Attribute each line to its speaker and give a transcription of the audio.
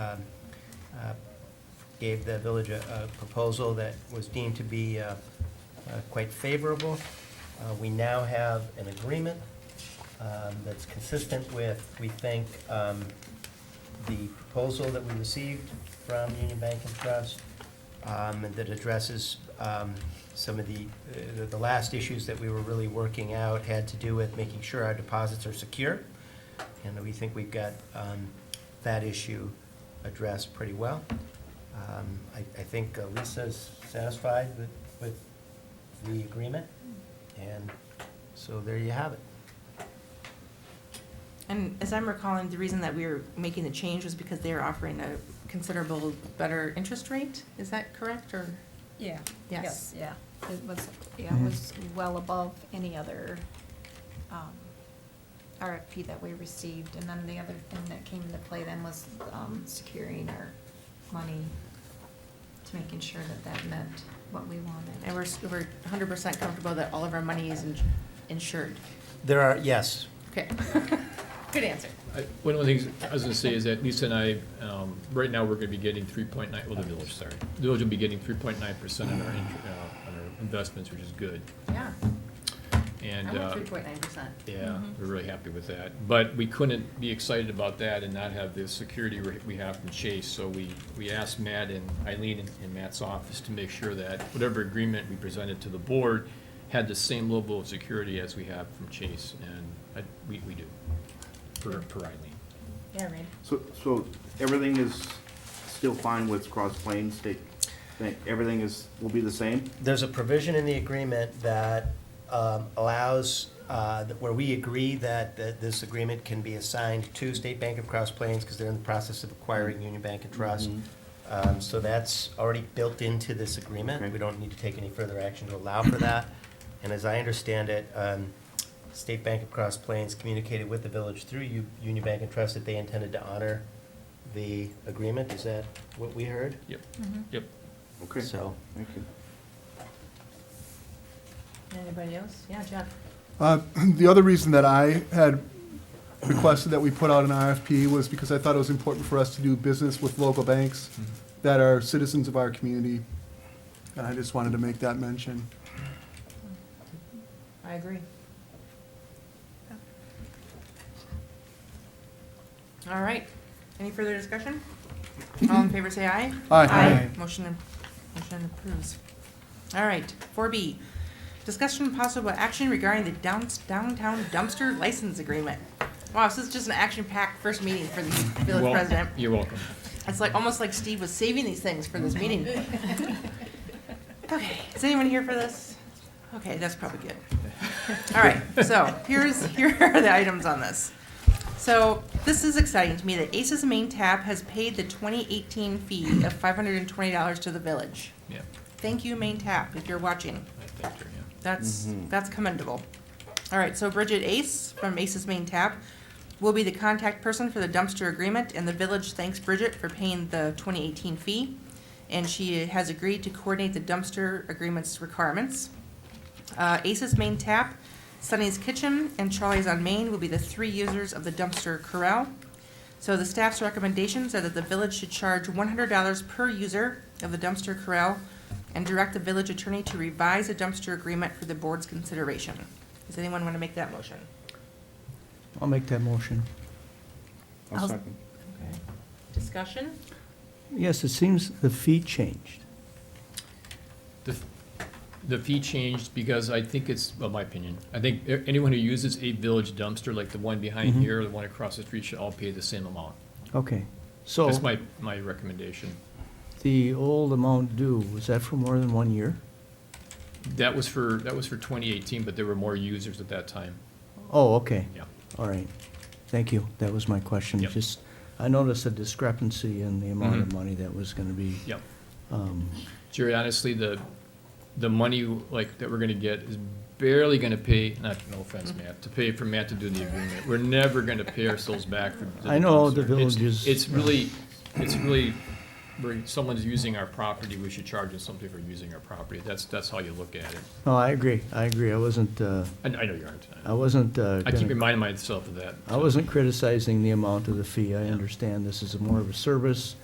Speaker 1: um, uh, gave the village a a proposal that was deemed to be uh, uh, quite favorable. Uh, We now have an agreement um, that's consistent with, we think, um, the proposal that we received from Union Bank and Trust um, and that addresses um, some of the, uh, the last issues that we were really working out had to do with making sure our deposits are secure. And we think we've got um, that issue addressed pretty well. Um, I, I think uh, Lisa's satisfied with, with the agreement, and so there you have it.
Speaker 2: And as I'm recalling, the reason that we were making the change was because they were offering a considerable better interest rate. Is that correct, or?
Speaker 3: Yeah.
Speaker 2: Yes.
Speaker 3: Yeah, it was, yeah, it was well above any other um, RFP that we received. And then the other thing that came into play then was um, securing our money to making sure that that meant what we
Speaker 2: And
Speaker 3: wanted.
Speaker 2: we're, s- we're hundred percent comfortable that all of our money is ins- insured.
Speaker 1: There are, yes,
Speaker 2: Okay. Good answer.
Speaker 4: I- One of the things I was gonna say is that Lisa and I, um, right now, we're gonna be getting three point nine, well, the village, sorry. The village will be getting three point nine percent on our, int- uh, on our investments, which is good.
Speaker 2: Yeah.
Speaker 4: And,
Speaker 2: I want
Speaker 4: uh,
Speaker 2: three point Mm-hmm. nine percent.
Speaker 4: yeah, we're really happy with that. But we couldn't be excited about that and not have the security we- we have from Chase. So we, we asked Matt and Eileen in- in Matt's office to make sure that whatever agreement we presented to the board had the same level of security as we have from Chase, and I, we, we do, for, for Eileen.
Speaker 2: Yeah, right.
Speaker 5: So, so everything is still fine with Cross Plains State? Think Everything is, will be the same?
Speaker 1: there's a provision in the agreement that um, allows, uh, that- where we agree that, that this agreement can be assigned to State Bank of Cross Plains, because they're in the process of acquiring Union Bank and Trust.
Speaker 5: Mhm.
Speaker 1: Um, So that's already built into this agreement.
Speaker 5: Okay.
Speaker 1: We don't need to take any further action to allow for that. And as I understand it, um, State Bank of Cross Plains communicated with the village through U- Union Bank and Trust that they intended to honor the agreement. Is that what we heard?
Speaker 4: Yep,
Speaker 3: Mhm.
Speaker 4: yep.
Speaker 5: Okay, thank
Speaker 1: So,
Speaker 5: you.
Speaker 2: Anybody else? Yeah, Jeff.
Speaker 6: Uh, The other reason that I had requested that we put out an RFP was because I thought it was important for us to do business with local banks that are citizens of our community, and I just wanted to make that mention.
Speaker 2: I agree. All right. Any further discussion? All in favor, say aye.
Speaker 6: Aye.
Speaker 2: Motion, motion approves. All right, four B, discussion and possible action regarding the downs- downtown dumpster license agreement. Wow, this is just an action-packed first meeting for the village
Speaker 4: Well,
Speaker 2: president.
Speaker 4: You're welcome.
Speaker 2: It's like, almost like Steve was saving these things for this meeting. Okay, is anyone here for this? Okay, that's probably good. All right, so here's, here are the items on this. So this is exciting to me that Aces Main Tap has paid the 2018 fee of $520 to the village.
Speaker 4: Yeah,
Speaker 2: Thank you, Main Tap, if you're watching.
Speaker 4: I thanked her, yeah.
Speaker 2: That's,
Speaker 5: Mhm.
Speaker 2: that's commendable. All right, so Bridget Ace from Ace's Main Tap will be the contact person for the dumpster agreement, and the village thanks Bridget for paying the 2018 fee, and she has agreed to coordinate the dumpster agreement's requirements. Uh, Ace's Main Tap, Sunny's Kitchen, and Charlie's on Main will be the three users of the dumpster corral. So the staff's recommendations are that the village should charge one hundred dollars per user of the dumpster corral and direct the village attorney to revise a dumpster agreement for the board's consideration. Does anyone want to make that motion?
Speaker 7: I'll make that motion.
Speaker 5: I'll
Speaker 2: I'll-
Speaker 5: second.
Speaker 2: Discussion?
Speaker 7: Yes, it seems the fee changed.
Speaker 4: The, f- the fee changed because I think it's, well, my opinion, I think a- anyone who uses a village dumpster, like the one behind
Speaker 7: Mhm.
Speaker 4: here, the one across the street, should all pay the same amount.
Speaker 7: Okay, so
Speaker 4: That's my, my recommendation.
Speaker 7: the old amount due, was that for more than one year?
Speaker 4: That was for, that was for twenty eighteen, but there were more users at that time,
Speaker 7: Oh, okay,
Speaker 4: yeah.
Speaker 7: all right. Thank you, that was my question.
Speaker 4: Yep.
Speaker 7: Just, I noticed a discrepancy in the amount
Speaker 4: Mhm.
Speaker 7: of money that was gonna be.
Speaker 4: Yep.
Speaker 7: um,
Speaker 4: Jerry, honestly, the, the money like that we're gonna get is barely gonna pay, not, no offense, Matt, to pay for Matt to do the agreement. We're never gonna pay ourselves back for. the
Speaker 7: I know the
Speaker 4: dumpster. It's-
Speaker 7: village is-
Speaker 4: It's really, it's really we're, someone's using our property, we should charge them something for using our property. That's, that's how you look at it.
Speaker 7: No, I agree, I agree. I wasn't, uh,
Speaker 4: I, I know you aren't.
Speaker 7: I wasn't. uh,
Speaker 4: I
Speaker 7: gonna-
Speaker 4: keep reminding myself of that.
Speaker 7: I wasn't criticizing the amount of the fee. I understand this is more of a service.